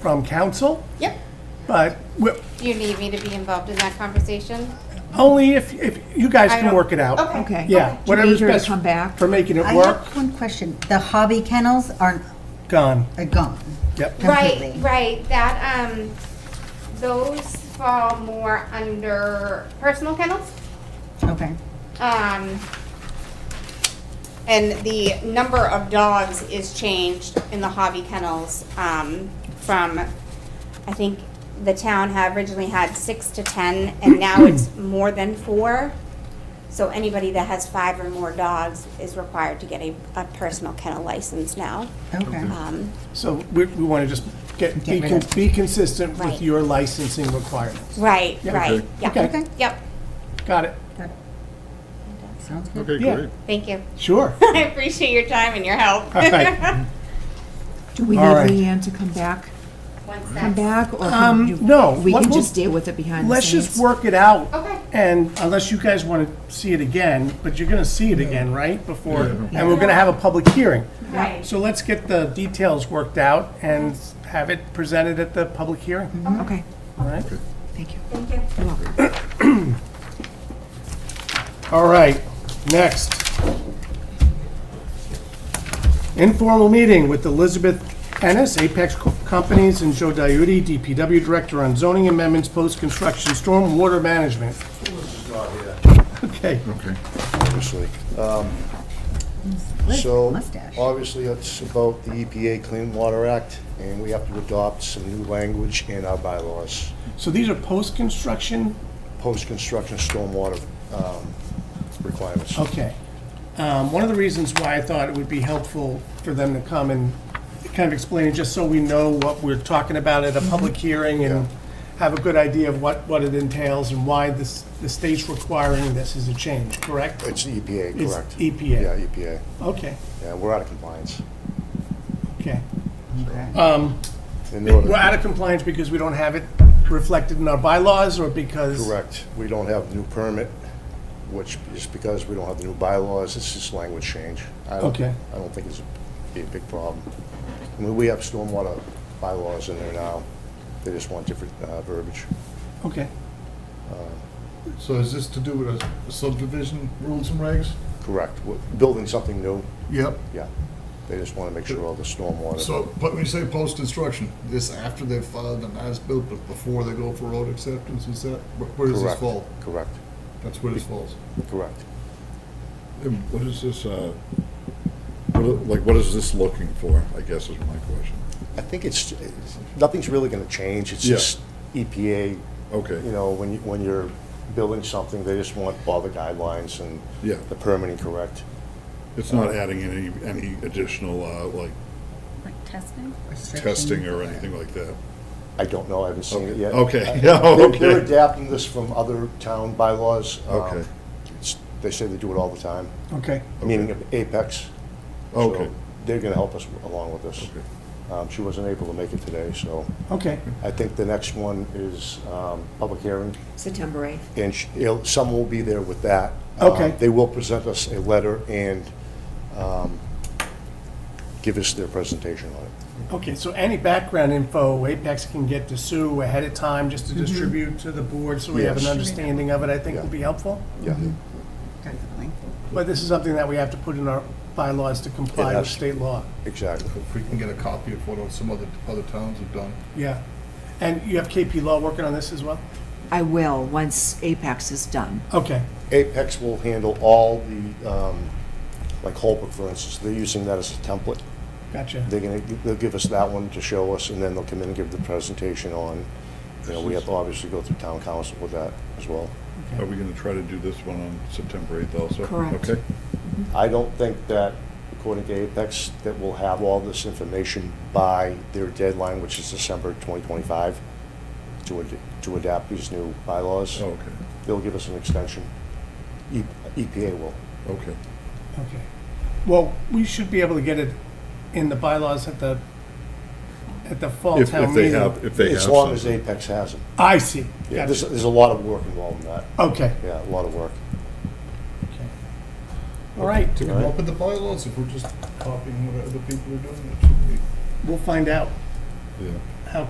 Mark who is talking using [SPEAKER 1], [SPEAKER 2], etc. [SPEAKER 1] from council,
[SPEAKER 2] Yep.
[SPEAKER 1] but we-
[SPEAKER 2] Do you need me to be involved in that conversation?
[SPEAKER 1] only if, if you guys
[SPEAKER 2] I
[SPEAKER 1] can
[SPEAKER 2] don't-
[SPEAKER 1] work it out.
[SPEAKER 2] Okay.
[SPEAKER 3] Okay.
[SPEAKER 1] Yeah,
[SPEAKER 3] Do you
[SPEAKER 1] whatever's
[SPEAKER 3] need her to
[SPEAKER 1] best
[SPEAKER 3] come back?
[SPEAKER 1] for making it
[SPEAKER 4] I
[SPEAKER 1] work,
[SPEAKER 4] have one question. The hobby kennels aren't,
[SPEAKER 1] gone,
[SPEAKER 4] are gone.
[SPEAKER 1] yep.
[SPEAKER 2] Right,
[SPEAKER 4] Completely.
[SPEAKER 2] right, that, um, those fall more under personal kennels.
[SPEAKER 4] Okay.
[SPEAKER 2] Um, and the number of dogs is changed in the hobby kennels, um, from, I think the town had originally had six to ten, and now it's more than four. So anybody that has five or more dogs is required to get a, a personal kennel license now.
[SPEAKER 4] Okay.
[SPEAKER 3] Uh,
[SPEAKER 2] Um,
[SPEAKER 1] So we, we want to just get, be,
[SPEAKER 4] Get rid
[SPEAKER 1] con-
[SPEAKER 4] of-
[SPEAKER 1] be consistent with
[SPEAKER 2] Right.
[SPEAKER 1] your licensing requirements.
[SPEAKER 2] right,
[SPEAKER 1] Yeah.
[SPEAKER 2] right,
[SPEAKER 5] Okay.
[SPEAKER 2] yeah.
[SPEAKER 1] Okay.
[SPEAKER 2] Yep,
[SPEAKER 1] Got it?
[SPEAKER 4] That Sounds good.
[SPEAKER 5] Okay,
[SPEAKER 1] Yeah.
[SPEAKER 5] great.
[SPEAKER 2] thank you.
[SPEAKER 1] Sure.
[SPEAKER 2] I appreciate your time and your help.
[SPEAKER 5] Uh-huh.
[SPEAKER 1] All right.
[SPEAKER 3] Do we need
[SPEAKER 1] All right.
[SPEAKER 3] Leanne to come back,
[SPEAKER 2] One
[SPEAKER 3] come
[SPEAKER 2] sec.
[SPEAKER 3] back, or
[SPEAKER 1] Um,
[SPEAKER 3] can you?
[SPEAKER 1] no,
[SPEAKER 3] We
[SPEAKER 1] what
[SPEAKER 3] can
[SPEAKER 1] we'll-
[SPEAKER 3] just deal with it behind the
[SPEAKER 1] Let's just
[SPEAKER 3] scenes?
[SPEAKER 1] work it out.
[SPEAKER 2] Okay.
[SPEAKER 1] And unless you guys want to see it again, but you're going to see it again, right? Before, and we're going to have a public hearing.
[SPEAKER 2] Right.
[SPEAKER 1] So let's get the details worked out and have it presented at the public hearing,
[SPEAKER 3] Okay,
[SPEAKER 1] all right?
[SPEAKER 3] thank you.
[SPEAKER 2] Thank you.
[SPEAKER 3] You're welcome.
[SPEAKER 1] All right, next. Informal meeting with Elizabeth Ennis, Apex Co- Companies, and Joe Diuti, DPW Director on zoning amendments, post-construction stormwater management. Okay,
[SPEAKER 5] Okay.
[SPEAKER 6] obviously. Um, So, uh,
[SPEAKER 4] mustache.
[SPEAKER 6] obviously, it's about the EPA Clean Water Act, and we have to adopt some new language in our bylaws,
[SPEAKER 1] so these are post-construction,
[SPEAKER 6] post-construction stormwater um, requirements.
[SPEAKER 1] okay. Um, One of the reasons why I thought it would be helpful for them to come and kind of explain, it, just so we know what we're talking about at a public hearing and have a good idea of what, what it entails and why this, the state's requiring this as a change, correct?
[SPEAKER 6] It's the EPA,
[SPEAKER 1] It's
[SPEAKER 6] correct?
[SPEAKER 1] EPA.
[SPEAKER 6] Yeah, EPA.
[SPEAKER 1] Okay,
[SPEAKER 6] Yeah, we're out of compliance.
[SPEAKER 1] okay.
[SPEAKER 6] In order-
[SPEAKER 1] We're out of compliance because we don't have it reflected in our bylaws or because?
[SPEAKER 6] Correct. We don't have new permit, which is because we don't have the new bylaws, it's just language change. I don't-
[SPEAKER 1] Okay.
[SPEAKER 6] I don't think it's a- be a big problem. I mean, we have stormwater bylaws in there now, they just want different uh, verbiage.
[SPEAKER 1] Okay,
[SPEAKER 5] So is this to do with a subdivision rules and regs?
[SPEAKER 6] Correct. We're Building something new,
[SPEAKER 5] Yep.
[SPEAKER 6] yeah. They just want to make sure all the stormwater.
[SPEAKER 5] So, but when you say post-construction, this after they've filed an as-built, but before they go for road acceptance, is that, wh- where does this
[SPEAKER 6] Correct.
[SPEAKER 5] fall?
[SPEAKER 6] Correct,
[SPEAKER 5] That's where this falls.
[SPEAKER 6] correct.
[SPEAKER 7] And What is this, uh, what are- like, what is this looking for, I guess is my question.
[SPEAKER 6] I think it's, it's- nothing's really going to change, it's
[SPEAKER 7] Yeah.
[SPEAKER 6] just E EPA.
[SPEAKER 7] Okay.
[SPEAKER 6] You know, when you, when you're building something, they just want all the guidelines and
[SPEAKER 7] Yeah.
[SPEAKER 6] the permitting correct.
[SPEAKER 7] It's not adding any, any additional, uh, like,
[SPEAKER 4] Like testing?
[SPEAKER 7] testing or anything like that?
[SPEAKER 6] I don't know, I haven't seen it yet. Uh,
[SPEAKER 7] Okay, yeah,
[SPEAKER 6] They're- They're
[SPEAKER 7] okay.
[SPEAKER 6] adapting this from other town bylaws. Um,
[SPEAKER 7] Okay.
[SPEAKER 6] it's- They say they do it all the time,
[SPEAKER 1] okay.
[SPEAKER 6] meaning of Apex. So
[SPEAKER 7] Okay.
[SPEAKER 6] They're gonna help us along with this. Um, She wasn't able to make it today, so
[SPEAKER 1] Okay,
[SPEAKER 6] I think the next one is um, public hearing,
[SPEAKER 3] September 8th.
[SPEAKER 6] and sh- it'll- someone will be there with that. Um,
[SPEAKER 1] Okay.
[SPEAKER 6] They will present us a letter and um, give us their presentation on it.
[SPEAKER 1] okay, so any background info Apex can get to Sue ahead of time, just to distribute to the board, so we have an
[SPEAKER 6] Yes.
[SPEAKER 1] understanding of it, I think will
[SPEAKER 6] Yeah.
[SPEAKER 1] be helpful.
[SPEAKER 6] Yeah,
[SPEAKER 4] Definitely.
[SPEAKER 1] But this is something that we have to put in our bylaws to comply with
[SPEAKER 6] Yes.
[SPEAKER 1] state law.
[SPEAKER 6] exactly.
[SPEAKER 5] If we can get a copy of what some other, other towns have done.
[SPEAKER 1] Yeah. And you have KP Law working on this as well?
[SPEAKER 3] I will, once Apex is done.
[SPEAKER 1] Okay,
[SPEAKER 6] Apex will handle all the, um, like Holbrook, for instance, they're using that as a template.
[SPEAKER 1] gotcha.
[SPEAKER 6] They're gonna, they'll give us that one to show us, and then they'll come in and give the presentation on, you know, we have to obviously go through town council with that as well.
[SPEAKER 7] Are we gonna try to do this one on September 8th also?
[SPEAKER 3] Correct.
[SPEAKER 7] Okay,
[SPEAKER 6] I don't think that, according to Apex, that we'll have all this information by their deadline, which is December 2025, to, ad- to adapt these new bylaws.
[SPEAKER 7] Oh, okay,
[SPEAKER 6] They'll give us an extension. E- EPA will.
[SPEAKER 7] okay.
[SPEAKER 1] Okay. Well, we should be able to get it in the bylaws at the, at the fall
[SPEAKER 7] If, if
[SPEAKER 1] town
[SPEAKER 7] they have,
[SPEAKER 1] meeting.
[SPEAKER 7] if they have.
[SPEAKER 6] As long as
[SPEAKER 7] something.
[SPEAKER 6] Apex has it.
[SPEAKER 1] I see. Gotcha.
[SPEAKER 6] Yeah, there's, there's a lot of work involved in that.
[SPEAKER 1] Okay.
[SPEAKER 6] Yeah, a lot of work.
[SPEAKER 1] Okay. All right,
[SPEAKER 5] To come up with the bylaws, if we're just copying what other people are doing, it should be.
[SPEAKER 1] we'll find out.
[SPEAKER 7] Yeah.